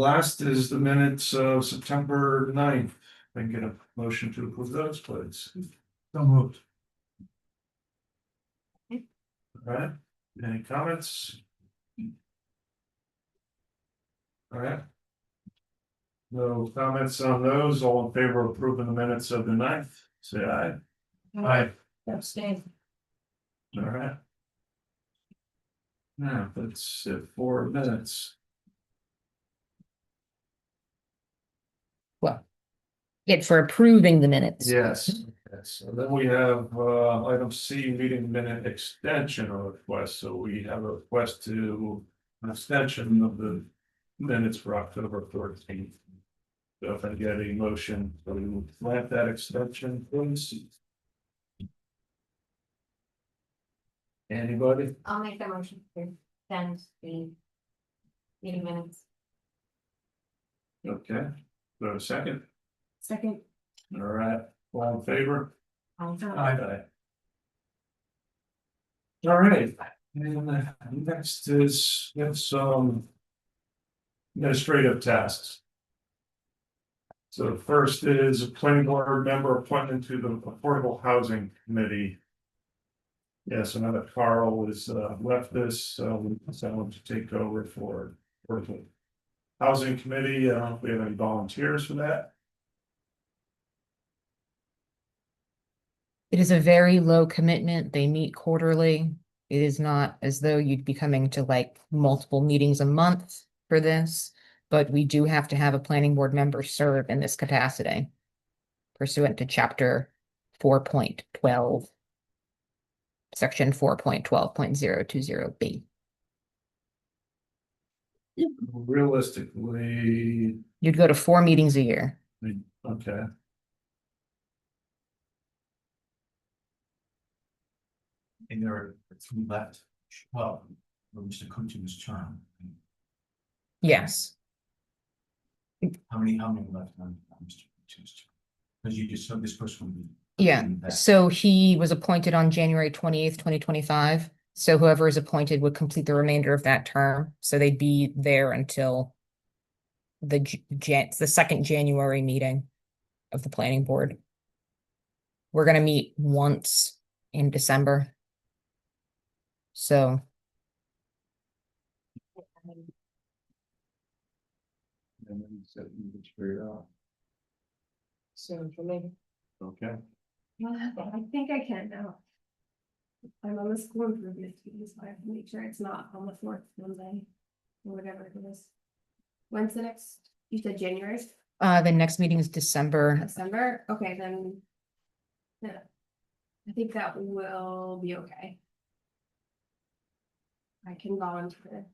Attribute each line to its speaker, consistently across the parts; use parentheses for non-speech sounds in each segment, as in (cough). Speaker 1: Last is the minutes of September 9th. I can get a motion to approve those, please.
Speaker 2: So moved.
Speaker 1: All right, any comments? All right. No comments on those, all in favor of approving the minutes of the 9th. say aye.
Speaker 2: Aye.
Speaker 3: Abstain.
Speaker 1: All right. Now, that's it, four minutes.
Speaker 4: It for approving the minutes.
Speaker 1: Yes, yes, and then we have uh item C, meeting minute extension request, so we have a request to. An extension of the minutes for October thirteenth. So if I get a motion, to grant that extension, please. Anybody?
Speaker 3: I'll make that motion to send the meeting minutes.
Speaker 1: Okay, go a second,
Speaker 3: Second.
Speaker 1: all right, all in favor?
Speaker 3: Aye.
Speaker 1: All right, and uh, next is, we have some. Administrative tasks. So first is a planning board member appointment to the Affordable Housing Committee. Yes, another Carl has uh left this, so someone to take over for. for the Housing Committee, I don't know if we have any volunteers for that,
Speaker 4: It is a very low commitment. They meet quarterly. It is not as though you'd be coming to like multiple meetings a month for this. But we do have to have a planning board member serve in this capacity pursuant to chapter four point twelve. Section four point twelve point zero two zero B.
Speaker 1: realistically,
Speaker 4: You'd go to four meetings a year.
Speaker 1: okay.
Speaker 2: And there are three left, well, from Mr. Coochin's term.
Speaker 4: Yes.
Speaker 2: How many, how many left on on Mr. Coochin's term? Because you just said this person would be.
Speaker 4: Yeah,
Speaker 2: Mm, that-
Speaker 4: so he was appointed on January twenty-eighth, twenty twenty-five. So whoever is appointed would complete the remainder of that term, so they'd be there until the J- Jan, the second January meeting of the planning board. We're gonna meet once in December. So,
Speaker 1: And then set you can figure it out.
Speaker 3: Soon for me.
Speaker 1: Okay,
Speaker 3: I think I can now. I'm on the school improvement team, so I have to make sure it's not on the fourth Monday. Or whatever it is. When's the next, you said January,
Speaker 4: uh, the next meeting is December,
Speaker 3: December, okay, then. Yeah. I think that will be okay. I can volunteer.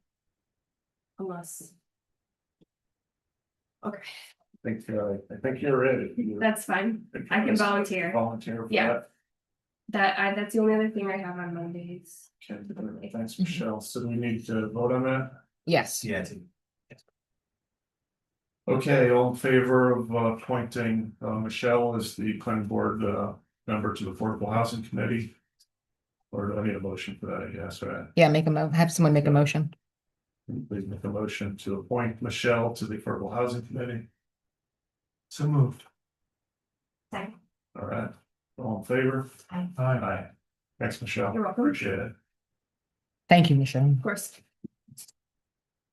Speaker 3: Unless. Okay,
Speaker 1: I think, uh, I think you're ready.
Speaker 3: that's fine, (laughs) I can volunteer,
Speaker 1: Volunteer for
Speaker 3: Yeah.
Speaker 1: that.
Speaker 3: that, I, that's the only other thing I have on Mondays.
Speaker 1: Okay, good. uh, Thanks, Michelle. So do we need to vote on that?
Speaker 4: yes,
Speaker 2: Yeah, I think-
Speaker 1: Okay, all in favor of uh, appointing uh, Michelle as the planning board uh, member to the Affordable Housing Committee? Or do I need a motion for that? Yes, right.
Speaker 4: yeah, make a mo, have someone make a motion.
Speaker 1: Please make a motion to appoint Michelle to the Affordable Housing Committee.
Speaker 2: So moved.
Speaker 3: Thank,
Speaker 1: All right, all in favor?
Speaker 3: I,
Speaker 2: Aye.
Speaker 1: Aye. Thanks, Michelle.
Speaker 3: You're welcome.
Speaker 1: Appreciate it.
Speaker 4: Thank you, Michelle.
Speaker 3: of course,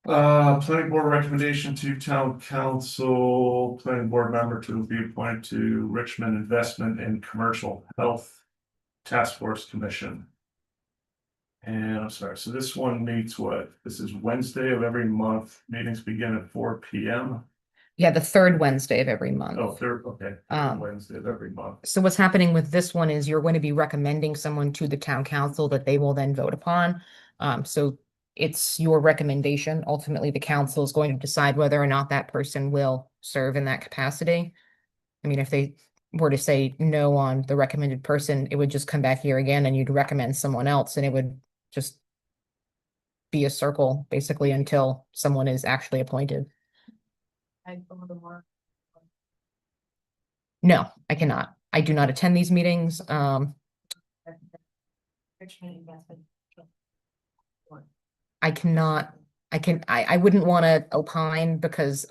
Speaker 1: Uh, planning board recommendation to town council, planning board member to be appointed to Richmond Investment and Commercial Health Task Force Commission. And I'm sorry, so this one meets what? This is Wednesday of every month. Meetings begin at four P M.
Speaker 4: Yeah, the third Wednesday of every
Speaker 1: Oh,
Speaker 4: month.
Speaker 1: third, okay,
Speaker 4: Um,
Speaker 1: Wednesday of every month.
Speaker 4: So what's happening with this one is you're going to be recommending someone to the town council that they will then vote upon. Um, so it's your recommendation. Ultimately, the council is going to decide whether or not that person will serve in that capacity. I mean, if they were to say no on the recommended person, it would just come back here again and you'd recommend someone else and it would just be a circle basically until someone is actually appointed. No, I cannot. I do not attend these meetings. Um,
Speaker 3: Richmond investment.
Speaker 4: I cannot I can, I, I wouldn't want to opine because